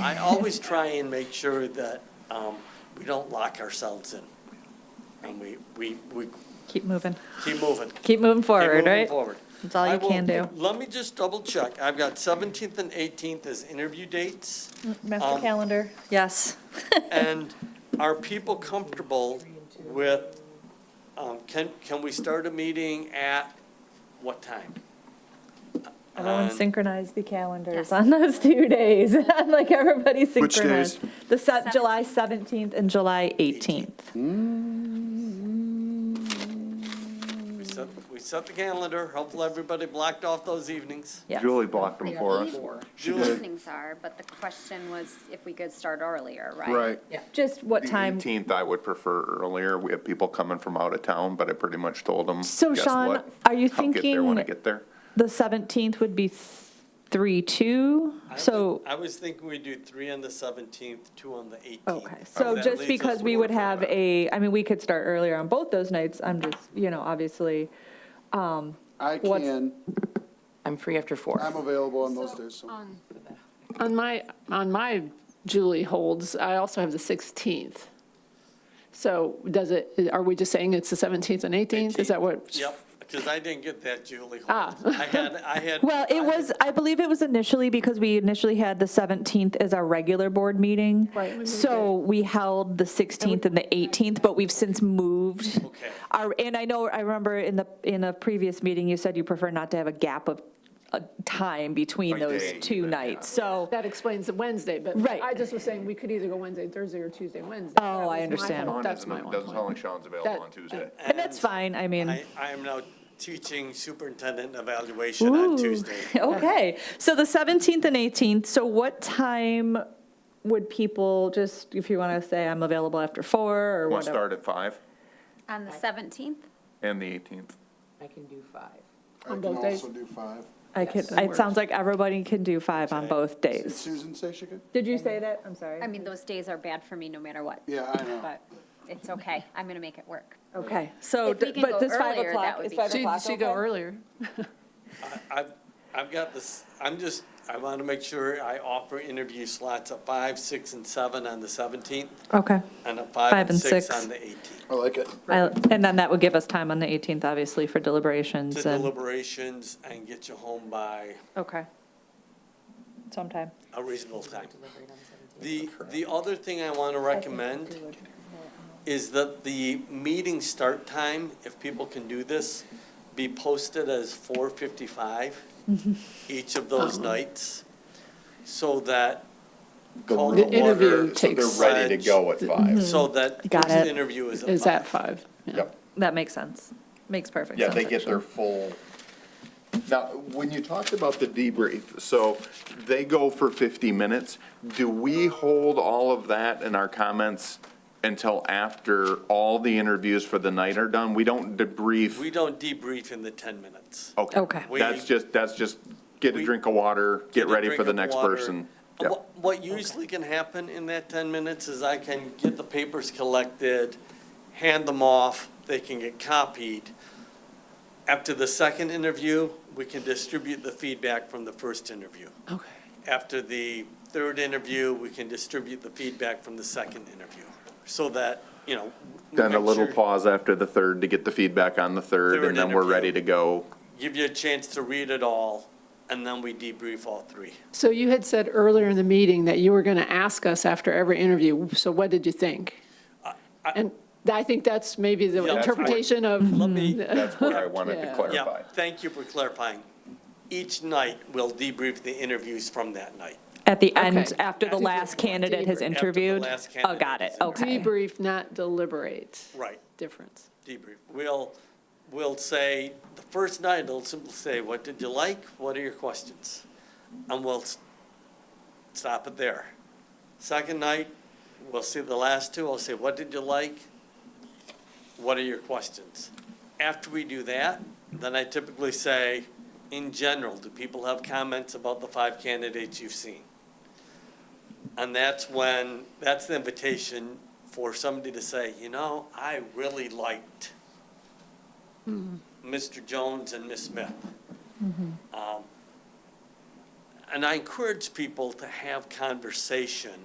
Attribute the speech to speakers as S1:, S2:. S1: I always try and make sure that um, we don't lock ourselves in. And we, we, we
S2: Keep moving,
S1: keep moving. Keep
S2: keep moving
S1: moving
S2: forward, right?
S1: Forward.
S2: That's all you
S1: I will-
S2: can do.
S1: Let me just double check. I've got 17th and 18th as interview dates.
S3: Master
S1: Um,
S3: calendar.
S2: Yes.
S1: And are people comfortable with, um, can, can we start a meeting at what time?
S2: Everyone
S1: On-
S2: synchronized the calendars
S3: Yes.
S2: on those two days. I'm like, everybody
S4: Which days?
S2: synchronized. The se- July 17th and July 18th.
S1: We set, we set the calendar. Hopefully, everybody blocked off those evenings.
S2: Yes.
S4: Julie blocked them for us.
S5: Before.
S4: She
S1: Julie.
S4: did.
S5: Evenings are, but the question was if we could start earlier, right?
S4: Right.
S2: Just what time?
S6: The 18th, I would prefer earlier. We have people coming from out of town, but I pretty much told them,
S2: So,
S6: guess
S2: Sean,
S6: what?
S2: are you
S6: I'll get there when I
S2: thinking-
S6: get there.
S2: The 17th would be 3, 2,
S1: I was-
S2: so,
S1: I was thinking we'd do three on the 17th, two on the 18th.
S2: okay. So
S1: That
S2: just
S1: leaves
S2: because
S1: us
S2: we
S1: with
S2: would have a, I mean, we could start earlier on both those nights. I'm just, you know, obviously,
S7: I
S2: What's-
S7: can,
S8: I'm free after
S7: I'm
S8: four.
S7: available on those days, so.
S9: On my, on my Julie holds, I also have the 16th. So does it, are we just saying it's the 17th and 18th? Is that what?
S1: Yep, because I didn't get that, Julie. Hold
S9: Ah.
S1: on. I had, I had.
S2: Well,
S1: I
S2: it
S1: had-
S2: was, I believe it was initially because we initially had the 17th as our regular board meeting. Right. So we held the 16th and the 18th, but we've since moved.
S1: Okay.
S2: Our, and I know, I remember in the, in a previous meeting, you said you prefer not to have a gap of uh, time between
S6: By
S2: those
S6: day,
S2: two
S6: even, yeah.
S2: nights, so.
S9: That explains the Wednesday, but
S2: Right.
S9: I just was saying we could either go Wednesday, Thursday, or Tuesday, Wednesday.
S2: Oh,
S9: That
S2: I
S9: was my
S2: understand.
S9: whole-
S6: Sean
S9: That's
S6: isn't-
S9: my whole
S6: Doesn't sound like
S9: point.
S6: Sean's available
S9: That-
S6: on Tuesday.
S2: And that's fine, I mean.
S1: I, I am now teaching superintendent evaluation on
S2: Ooh.
S1: Tuesday.
S2: Okay, so the 17th and 18th, so what time would people, just if you want to say, I'm available after four or
S6: Want to
S2: whatever?
S6: start at 5
S5: On the 17th?
S6: and the 18th.
S8: I can do five.
S7: I can
S9: both days?
S7: also do five.
S2: I could, it sounds like everybody can do five on both
S7: Did
S2: days.
S7: Susan say she could?
S2: Did you say that? I'm sorry.
S5: I mean, those days are bad for me no matter what.
S7: Yeah, I know.
S5: But it's okay, I'm going to make it work.
S2: Okay, so,
S5: If we
S2: d-
S5: can
S2: but
S5: go
S2: this five
S5: earlier, that
S2: o'clock,
S5: would
S2: is
S5: be
S2: five o'clock
S9: She, she go
S2: okay?
S9: earlier.
S1: I've, I've got this, I'm just, I want to make sure I offer interview slots at five, six, and seven on the 17th,
S2: Okay,
S1: and at five and six on the 18th.
S7: I like it.
S2: I- and then that would give us time on the 18th, obviously, for
S1: To
S2: deliberations and,
S1: deliberations and get you home by
S2: okay. Sometime.
S1: a reasonable time. The, the other thing I want to recommend
S2: uh,
S1: is that the meeting start time, if people can do this, be posted as four fifty-five
S2: Mm-hmm.
S1: each of those
S2: Uh-huh.
S1: nights, so that call
S9: The
S1: to
S9: interview
S1: order,
S9: takes,
S1: ready to go
S6: at 5.
S1: so that
S2: Mm-hmm. Got
S1: first
S2: it.
S1: interview is at
S9: is at
S1: five.
S9: five. yeah.
S6: Yep.
S2: That makes sense. Makes perfect
S6: Yeah,
S2: sense.
S6: they get their
S2: actually.
S6: full. Now, when you talked about the debrief, so they go for 50 minutes. Do we hold all of that in our comments until after all the interviews for the night are done? We don't
S1: We
S6: debrief?
S1: don't debrief in the ten minutes.
S6: Okay.
S2: Okay.
S1: We-
S6: That's just, that's just get a
S1: We-
S6: drink of water, get
S1: a
S6: ready
S1: drink
S6: for the
S1: of
S6: next
S1: water.
S6: person.
S1: Uh,
S6: Yep.
S1: What what usually can happen in that 10 minutes is I can get the papers collected, hand them off, they can get copied. After the second interview, we can distribute the feedback from the first interview.
S9: Okay.
S1: After the third interview, we can distribute the feedback from the second interview, so that, you know. we
S6: Then a
S1: make
S6: little
S1: sure-
S6: pause after the third to get the feedback on the third,
S1: Third
S6: and then we're
S1: interview.
S6: ready to go.
S1: Give you a chance to read it all, and then we debrief all three.
S9: So you had said earlier in the meeting that you were going to ask us after every interview, so what did you think? And I think that's maybe
S1: Yeah,
S9: the
S1: that's what-
S9: interpretation of.
S1: Let me,
S6: That's where I wanted to
S9: Yeah.
S6: clarify.
S1: Yeah, thank you for clarifying. Each night, we'll debrief the interviews from that night.
S2: At the end,
S9: Okay.
S2: after the
S9: After the-
S2: last candidate
S9: After
S2: has
S9: the
S2: interviewed?
S1: last
S2: Oh,
S1: candidate
S2: got it,
S1: has
S2: okay.
S9: Debrief, not deliberate.
S1: Right,
S9: Difference.
S1: debrief. We'll, we'll say, the first night, it'll simply say, what did you like? What are your questions? And we'll s- stop it there. Second night, we'll see the last two. I'll say, what did you like? What are your questions? After we do that, then I typically say, in general, do people have comments about the five candidates you've seen? And that's when, that's the invitation for somebody to say, you know, I really liked Mr. Jones and Ms. Smith. Um, and I encourage people to have conversation